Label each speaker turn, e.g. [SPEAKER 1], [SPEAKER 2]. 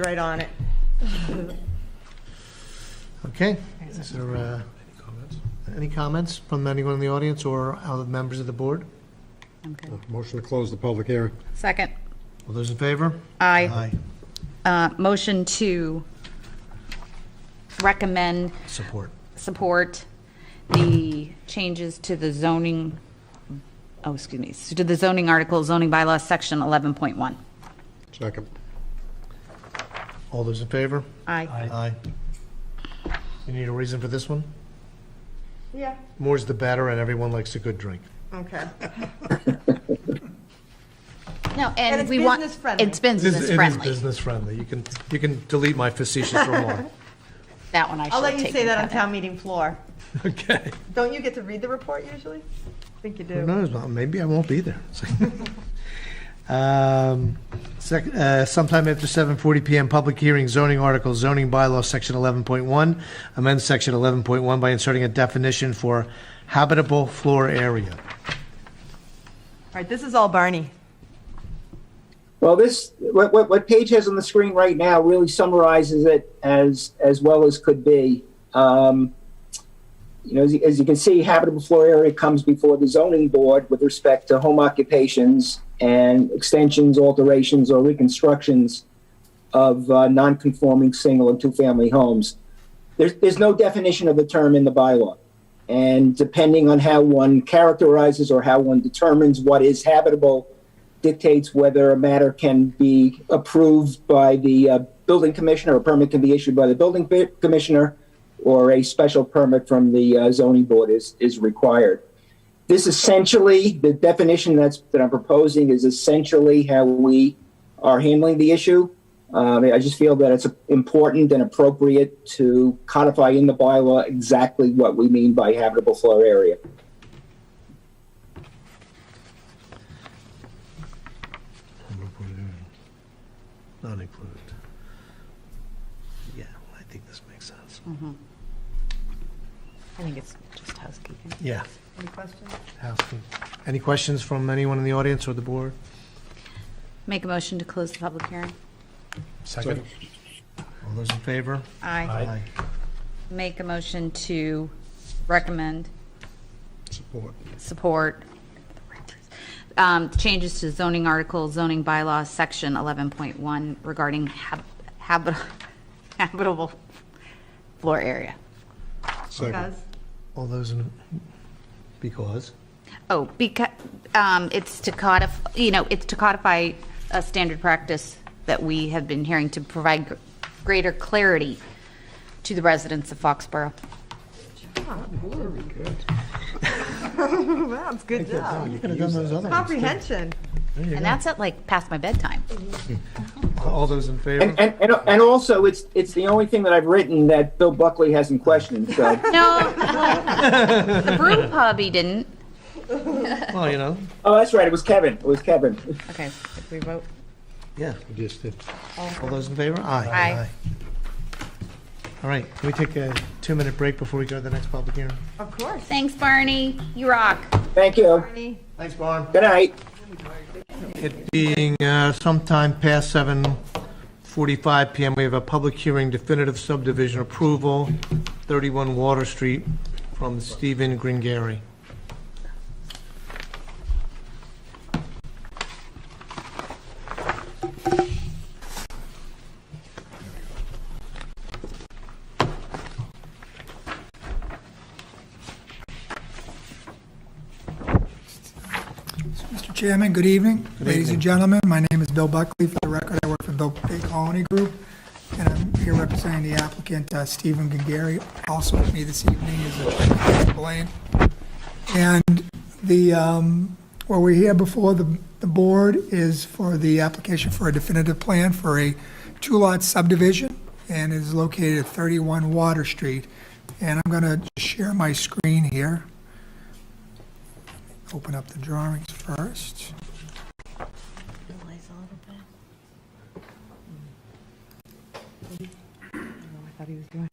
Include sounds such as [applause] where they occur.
[SPEAKER 1] Right on it.
[SPEAKER 2] Okay, is there, uh, any comments from anyone in the audience or other members of the board?
[SPEAKER 3] Motion to close the public hearing.
[SPEAKER 4] Second.
[SPEAKER 2] All those in favor?
[SPEAKER 4] Aye. Uh, Motion to recommend,
[SPEAKER 2] Support.
[SPEAKER 4] support the changes to the zoning, oh, excuse me, to the zoning article, zoning bylaw, section 11.1.
[SPEAKER 3] Second.
[SPEAKER 2] All those in favor?
[SPEAKER 4] Aye.
[SPEAKER 2] Aye. You need a reason for this one?
[SPEAKER 1] Yeah.
[SPEAKER 2] More's the better, and everyone likes a good drink.
[SPEAKER 1] Okay.
[SPEAKER 4] No,
[SPEAKER 1] And
[SPEAKER 4] and
[SPEAKER 1] it's
[SPEAKER 4] we want.
[SPEAKER 1] business friendly.
[SPEAKER 4] It's
[SPEAKER 2] It
[SPEAKER 4] business
[SPEAKER 2] is- It is
[SPEAKER 4] friendly.
[SPEAKER 2] business friendly. You can, you can delete my facetious
[SPEAKER 4] [laughs]
[SPEAKER 2] remark.
[SPEAKER 4] That one I should
[SPEAKER 1] I'll
[SPEAKER 4] have
[SPEAKER 1] let you
[SPEAKER 4] taken.
[SPEAKER 1] say that
[SPEAKER 4] care
[SPEAKER 1] on
[SPEAKER 4] of.
[SPEAKER 1] town meeting floor.
[SPEAKER 2] Okay.
[SPEAKER 1] Don't you get to read the report usually? I think you
[SPEAKER 2] Who
[SPEAKER 1] do.
[SPEAKER 2] knows, well, maybe I won't be there. [laughs] Um, sec- uh, Sometime after 7:40 PM, public hearing, zoning article, zoning bylaw, section 11.1, amend section 11.1 by inserting a definition for habitable floor area.
[SPEAKER 1] All right, this is all Barney.
[SPEAKER 5] Well, this what, what what Paige has on the screen right now really summarizes it as as well as could be. Um, you know, as, you- as you can see, habitable floor area comes before the zoning board with respect to home occupations and extensions, alterations, or reconstructions of uh, non-conforming single and two-family homes. There's there's no definition of the term in the bylaw, and depending on how one characterizes or how one determines what is habitable dictates whether a matter can be approved by the uh, building commissioner, a permit can be issued by the building bi- commissioner, or a special permit from the uh, zoning board is, is required. This essentially, the definition that's, that I'm proposing is essentially how we are handling the issue. Um, I just feel that it's important and appropriate to codify in the bylaw exactly what we mean by habitable floor area.
[SPEAKER 2] Not included. Yeah, I think this makes sense.
[SPEAKER 4] I think it's just housekeeping.
[SPEAKER 2] Yeah.
[SPEAKER 1] Any questions?
[SPEAKER 2] housekeeping. Any questions from anyone in the audience or the board?
[SPEAKER 4] Make a motion to close the public hearing.
[SPEAKER 2] Second. All those in favor?
[SPEAKER 4] Aye.
[SPEAKER 2] Aye.
[SPEAKER 4] Make a motion to recommend
[SPEAKER 3] Support.
[SPEAKER 4] support um, changes to zoning article, zoning bylaw, section 11.1 regarding hab- habit- [laughs] habitable floor area.
[SPEAKER 3] Second.
[SPEAKER 2] All those in, because?
[SPEAKER 4] Oh, because, it's to codify, you know, it's to codify a standard practice that we have been hearing to provide gr- greater clarity to the residents of Foxborough.
[SPEAKER 1] [laughs] Wow, it's good job.
[SPEAKER 2] You could have done those other ones.
[SPEAKER 1] Comprehension.
[SPEAKER 4] And that's at like past my bedtime.
[SPEAKER 2] All those in favor?
[SPEAKER 5] And, and, and also, it's, it's the only thing that I've written that Bill Buckley hasn't questioned, so.
[SPEAKER 4] [laughs] No, the brew pub, he didn't.
[SPEAKER 2] Well, you know,
[SPEAKER 5] Oh, that's right, it was Kevin, it was Kevin.
[SPEAKER 4] Okay, we vote?
[SPEAKER 2] yeah.
[SPEAKER 3] Just did.
[SPEAKER 2] All those in favor? Aye.
[SPEAKER 4] Aye.
[SPEAKER 2] All right, can we take a two-minute break before we go to the next public hearing?
[SPEAKER 1] Of course.
[SPEAKER 4] Thanks, Barney. You rock.
[SPEAKER 5] Thank you,
[SPEAKER 1] Barney.
[SPEAKER 2] Thanks, Barn.
[SPEAKER 5] good night.
[SPEAKER 2] It being uh, sometime past 7:45 PM, we have a public hearing definitive subdivision approval, 31 Water Street, from Stephen Gringari.
[SPEAKER 6] Mr. Chairman, good evening. Ladies and gentlemen, my name is Bill Buckley. For the record, I work for Bill Bay Colony Group, and I'm here representing the applicant, uh, Stephen Gengary. Also with me this evening is uh, Blaine. And the, um, what we're here before the, the board is for the application for a definitive plan for a two-lot subdivision, and is located at 31 Water Street. And I'm going to share my screen here open up the drawings first.
[SPEAKER 1] Oh, I thought he was doing.